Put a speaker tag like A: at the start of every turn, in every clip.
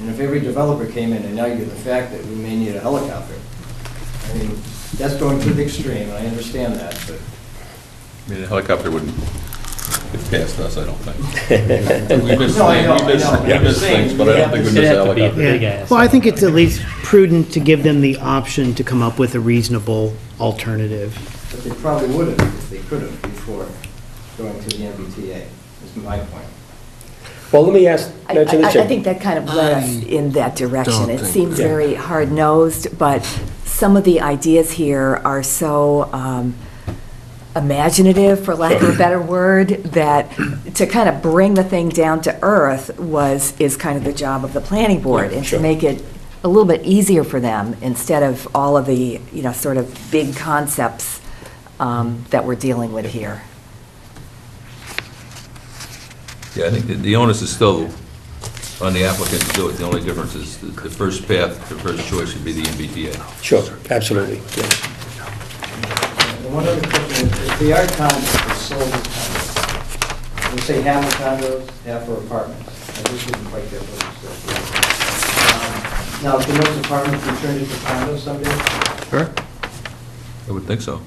A: And if every developer came in and argued the fact that we may need a helicopter, I mean, that's going to the extreme, and I understand that, but
B: I mean, a helicopter wouldn't get past us, I don't think. We miss,
A: No, I know,
B: things- we miss,
A: I know.
B: we miss things, but I don't think we miss a helicopter.
C: Yeah.
D: big ass.
C: Well, I think it's at least prudent to give them the option to come up with a reasonable alternative.
A: but they probably would have if they could have before going to the MBTA, is my point.
E: Well, let me ask,
F: I- I
E: mention this,
F: I
E: Jim.
F: think that kind of led us in that direction. It seems
E: Yeah.
F: very hard-nosed, but some of the ideas here are so um, imaginative, for lack of a better word, that to kind of bring the thing down to earth was, is kind of the job of the planning board,
E: Yeah,
F: and to
E: sure.
F: make it a little bit easier for them, instead of all of the, you know, sort of big concepts um, that we're dealing with here.
B: Yeah, I think that the onus is still on the applicant to do it. The only difference is the- the first path, the first choice would be the MBTA.
E: Sure, absolutely, yeah.
A: And one other question, is, if they are condos, they're sold as condos, we say half are condos, half are apartments. I just didn't quite get what you said. Um, Now, can those apartments be turned into condos someday
B: Sure. I would think so.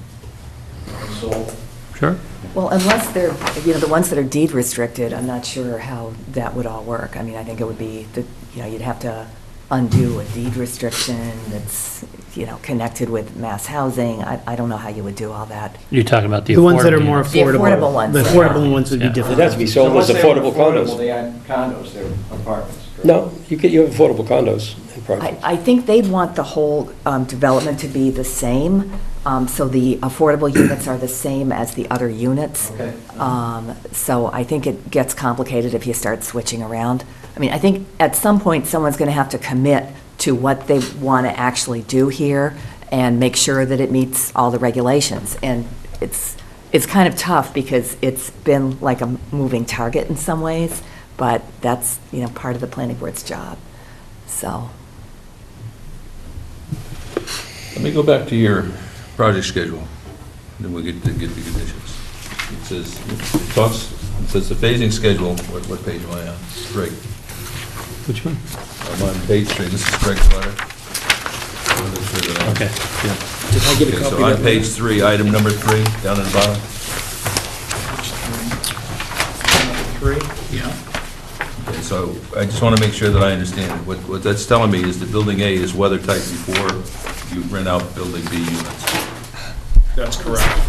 A: and sold?
B: Sure.
F: Well, unless they're, you know, the ones that are deed restricted, I'm not sure how that would all work. I mean, I think it would be, the you know, you'd have to undo a deed restriction that's, you know, connected with mass housing. I, I don't know how you would do all that.
D: You're talking about the affordable.
C: The ones that are more
F: The
C: affordable.
F: affordable ones,
C: The
F: yeah.
C: affordable ones would be
D: Yeah.
C: difficult.
E: It has to be sold as
A: So once they're
E: affordable condos.
A: They aren't condos, they're apartments. correct?
E: No, you get your affordable condos and
F: I,
E: projects.
F: I think they want the whole um, development to be the same, um, so the affordable units are the same as the other units.
A: Okay.
F: Um, So I think it gets complicated if you start switching around. I mean, I think at some point, someone's going to have to commit to what they want to actually do here and make sure that it meets all the regulations. And it's, it's kind of tough because it's been like a moving target in some ways, but that's, you know, part of the planning board's job, so.
B: Let me go back to your project schedule, then we get to get the conditions. It says, it talks, it says the phasing schedule, what, what page am I on? Greg,
D: Which one?
B: I'm on page three, this is Greg's letter.
D: Okay, yeah.
E: I
B: Okay, so on page three, item number three, down at the bottom.
A: Three?
B: Okay, So I just want to make sure that I understand. What, what that's telling me is that building A is weather tight before you rent out building B units.
G: That's correct.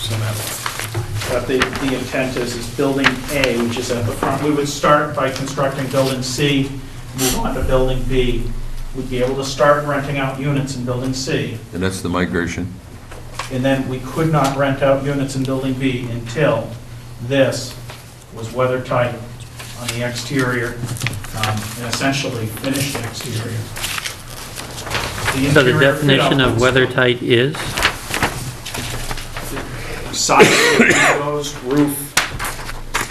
G: So that- But the, the intent is, is building A, which is at the front, we would start by constructing building C, move on to building B. We'd be able to start renting out units in building C,
B: And that's the migration.
G: and then we could not rent out units in building B until this was weather tight on the exterior, um, and essentially finished exterior. The
D: So the
G: interior
D: definition
G: fit-out
D: of
G: was-
D: weather tight is,
G: Side windows, roof,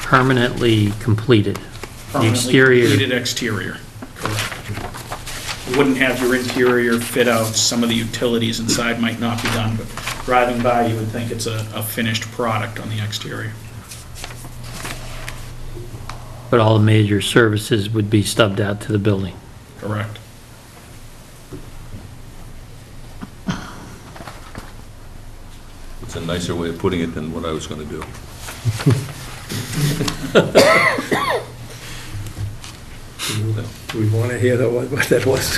D: permanently completed. The
G: permanently
D: exterior,
G: completed exterior. Correct. You Wouldn't have your interior fit outs, some of the utilities inside might not be done, but driving by, you would think it's a, a finished product on the exterior.
D: but all the major services would be stubbed out to the building.
G: Correct.
B: It's a nicer way of putting it than what I was going to do.
E: Do we want to hear that one- what that was?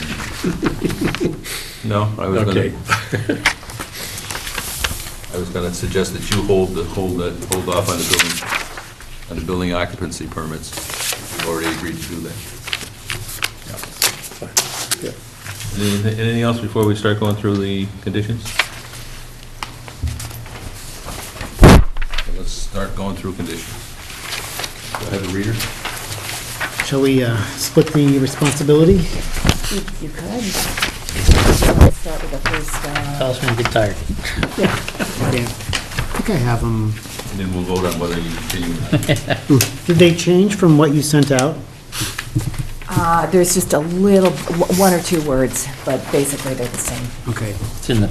B: No, I was going
E: Okay.
B: to, I was going to suggest that you hold, the hold, that hold off on the building, on the building occupancy permits. You've already agreed to do that.
E: Yeah.
B: Anything anything else before we start going through the conditions? Okay, Let's start going through conditions. Do I have a reader?
C: Shall we uh, split the responsibility?
F: You you could. Let's Start with the first, uh,
D: Tell us when you get tired.
C: Yeah. I think I have them.
B: And then we'll vote on whether you continue or not.
C: Did they change from what you sent out?
F: uh, there's just a little, one or two words, but basically they're the same.
C: Okay.
D: It's in the